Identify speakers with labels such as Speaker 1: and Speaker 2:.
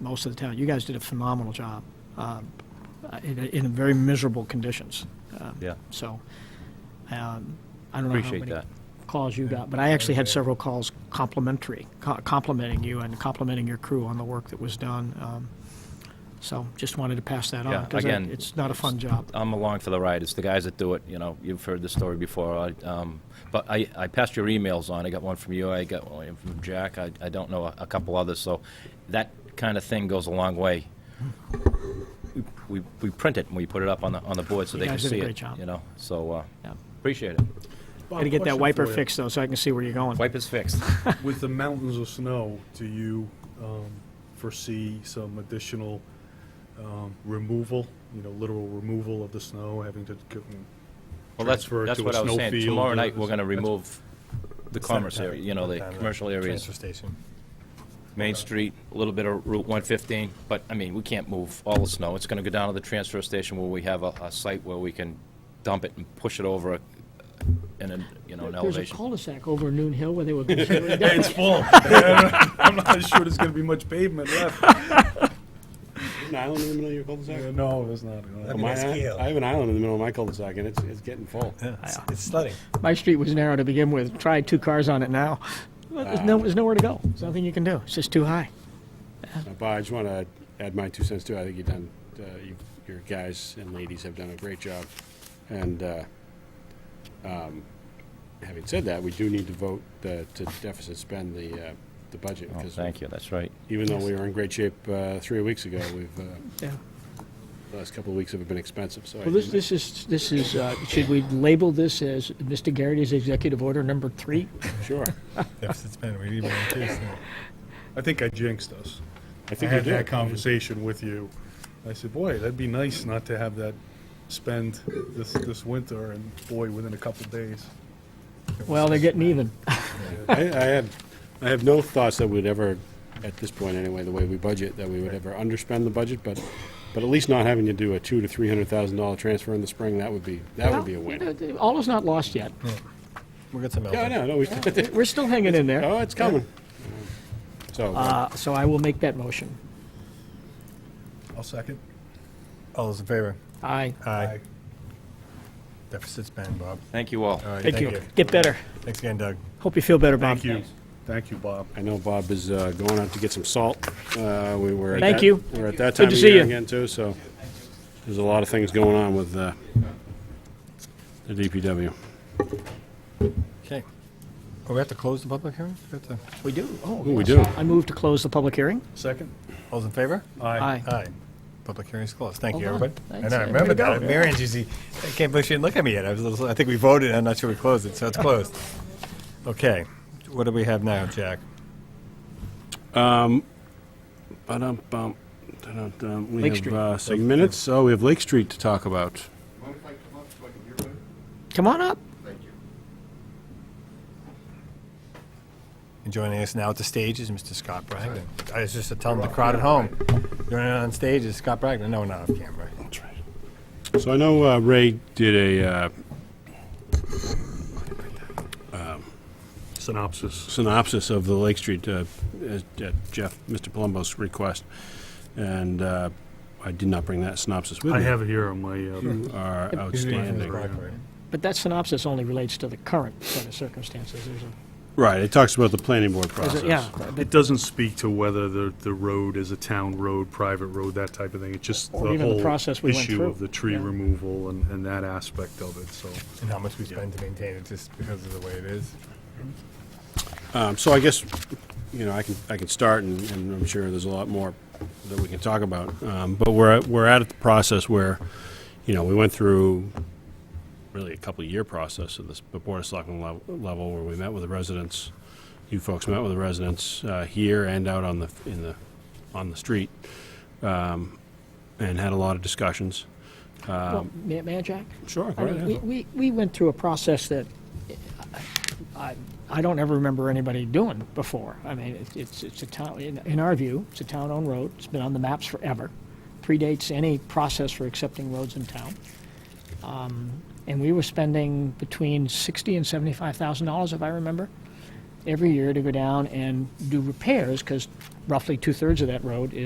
Speaker 1: most of the town. You guys did a phenomenal job uh, in, in very miserable conditions. Uh,
Speaker 2: Yeah.
Speaker 1: So um, I don't know how
Speaker 2: Appreciate
Speaker 1: many
Speaker 2: that.
Speaker 1: calls you got, but I actually had several calls complimentary, co- complimenting you and complimenting your crew on the work that was done. Um, so just wanted to pass that on
Speaker 2: Yeah,
Speaker 1: because
Speaker 2: again,
Speaker 1: it's not a fun job.
Speaker 2: I'm along for the ride. It's the guys that do it. You know, you've heard the story before. I, um, but I, I passed your emails on. I got one from you. I got one from Jack. I, I don't know a, a couple others. So that kind of thing goes a long way. We, we print it and we put it up on the on the board so
Speaker 1: You
Speaker 2: they
Speaker 1: guys
Speaker 2: can
Speaker 1: did a
Speaker 2: see
Speaker 1: great
Speaker 2: it.
Speaker 1: job.
Speaker 2: You know, so uh,
Speaker 1: Yeah.
Speaker 2: appreciate it.
Speaker 1: Got to get that wiper fixed though, so I can see where you're going.
Speaker 2: Wipe is fixed.
Speaker 3: With the mountains of snow, do you um, foresee some additional um, removal, you know, literal removal of the snow, having to go-
Speaker 2: Well, that's,
Speaker 3: transfer it
Speaker 2: that's
Speaker 3: to a
Speaker 2: what I was saying.
Speaker 3: snowfield?
Speaker 2: Tomorrow night,
Speaker 3: That's-
Speaker 2: we're going to
Speaker 3: that's-
Speaker 2: remove the commerce area, you know, the commercial areas,
Speaker 4: uh, Transfer station.
Speaker 2: Main Street, a little bit of Route 115, but, I mean, we can't move all the snow. It's going to go down to the transfer station where we have a, a site where we can dump it and push it over a- in a, you know, an
Speaker 1: There's a
Speaker 2: elevation.
Speaker 1: cul-de-sac over Noon Hill where they were considering
Speaker 3: Hey, It's full. I'm not sure there's gonna be much pavement left.
Speaker 5: An island in the middle of your
Speaker 3: Yeah,
Speaker 5: cul-de-sac?
Speaker 3: No, there's not. no.
Speaker 4: That'd be
Speaker 5: My
Speaker 4: nice
Speaker 5: i-
Speaker 4: keel.
Speaker 5: I have an island in the middle of my cul-de-sac, and it's, it's getting full.
Speaker 4: Yeah, it's- It's sledding.
Speaker 1: My street was narrow to begin with. Try two cars on it now. Well, There's, no, there's nowhere to go. There's nothing you can do. It's just too high.
Speaker 5: But Uh, I just want to add my two cents too. I think you've done, uh, you- your guys and ladies have done a great job. And uh, um, having said that, we do need to vote uh, to deficit spend the, uh, the budget.
Speaker 2: Oh,
Speaker 5: because
Speaker 2: Thank you, that's right.
Speaker 5: Even though we were in great shape uh, three weeks ago, we've, uh,
Speaker 1: Yeah.
Speaker 5: the last couple of weeks have been expensive, so. I
Speaker 1: Well, this,
Speaker 5: didn't-
Speaker 1: this is, this is, uh, should we label this as Mr. Garrity's executive order number three?
Speaker 5: Sure.
Speaker 4: Deficit spend, we need more too, so-
Speaker 3: I think I jinxed us.
Speaker 5: I
Speaker 3: I
Speaker 5: think you
Speaker 3: had that
Speaker 5: did.
Speaker 3: conversation with you. I said, boy, that'd be nice not to have that spend this, this winter, and boy, within a couple days.
Speaker 1: Well, they're getting even.
Speaker 5: I, I have, I have no thoughts that we'd ever, at this point anyway, the way we budget, that we would ever underspend the budget, but, but at least not having to do a two to three hundred thousand dollar transfer in the spring, that would be, that would be a win.
Speaker 1: All is not lost yet.
Speaker 4: We'll get some help.
Speaker 5: Yeah, no, no, we,
Speaker 1: We're still hanging in there.
Speaker 5: oh, it's coming. So,
Speaker 1: Uh, so I will make that motion.
Speaker 3: I'll second.
Speaker 4: All those in favor?
Speaker 1: Aye.
Speaker 4: Aye. Deficit spend, Bob.
Speaker 2: Thank you all.
Speaker 4: All right,
Speaker 1: Thank you. Get better.
Speaker 4: Thanks again, Doug.
Speaker 1: Hope you feel better, Bob.
Speaker 3: Thank you. Thank you, Bob.
Speaker 5: I know Bob is uh, going out to get some salt. Uh, We were. at
Speaker 1: Thank
Speaker 5: that-
Speaker 1: you.
Speaker 5: We're at that
Speaker 1: Good
Speaker 5: time
Speaker 1: to
Speaker 5: of
Speaker 1: see
Speaker 5: year
Speaker 1: you.
Speaker 5: again, too, so there's a lot of things going on with uh, the DPW.
Speaker 4: Okay. Oh, we have to close the public hearing? We have to-
Speaker 1: We do. Oh,
Speaker 5: Ooh, we
Speaker 1: yes.
Speaker 5: do.
Speaker 1: I move to close the public hearing.
Speaker 3: Second?
Speaker 4: All those in favor?
Speaker 1: Aye.
Speaker 4: Aye. Public hearing's closed. Thank you,
Speaker 1: Hold on.
Speaker 4: everybody.
Speaker 1: Thanks.
Speaker 4: And I
Speaker 1: Way to
Speaker 4: remember
Speaker 1: go.
Speaker 4: that. Marion's usually, I can't believe she didn't look at me yet. I was a little, I think we voted, I'm not sure we closed it, so it's closed. Okay, what do we have now, Jack?
Speaker 5: Ba-dum-bum, da-dum-dum. We
Speaker 1: Lake
Speaker 5: have
Speaker 1: Street.
Speaker 5: uh,
Speaker 4: Lake
Speaker 5: some minutes. Oh, we have Lake Street to talk about.
Speaker 6: Mind if I come up so I can hear better?
Speaker 1: Come on up.
Speaker 6: Thank you.
Speaker 4: And joining us now at the stage is Mr. Scott Bragdon. I was just to tell the crowd at home, joining on stage is Scott Bragdon. No, not off camera.
Speaker 5: So I know uh, Ray did a uh,
Speaker 3: Synopsis.
Speaker 5: synopsis of the Lake Street uh, at at Jeff, Mr. Palumbo's request, and uh, I did not bring that synopsis with me.
Speaker 3: I have it here on my, uh,
Speaker 5: Are
Speaker 4: Mr.
Speaker 5: outstanding.
Speaker 4: Bragdon.
Speaker 1: But that synopsis only relates to the current set of circumstances. There's a-
Speaker 5: Right, it talks about the planning board
Speaker 1: there's
Speaker 5: process.
Speaker 1: a- Yeah.
Speaker 3: uh, it doesn't speak to whether the, the road is a town road, private road, that type of thing. It's just the
Speaker 1: Or even the
Speaker 3: whole
Speaker 1: process we went
Speaker 3: issue
Speaker 1: through.
Speaker 3: of the tree
Speaker 1: Yeah.
Speaker 3: removal and, and that aspect of it, so.
Speaker 4: And how much we spend to maintain it just because of the way it is.
Speaker 5: Um, So I guess, you know, I can, I can start, and and I'm sure there's a lot more that we can talk about. Um, But we're, at- we're at the process where, you know, we went through really a couple-year process at this, the Board of Selectmen lev- level, where we met with the residents. You folks met with the residents uh, here and out on the, in the, on the street, um, and had a lot of discussions. Um,
Speaker 1: Well, may, may I, Jack?
Speaker 5: Sure,
Speaker 1: I mean, we, we, we went through a process that I, I don't ever remember anybody doing before. I mean, it- it's, it's a town, in, in our view, it's a town-owned road. It's been on the maps forever. Predates any process for accepting roads in town. Um, And we were spending between sixty and seventy-five thousand dollars, if I remember, every year to go down and do repairs, because roughly two-thirds of that road is.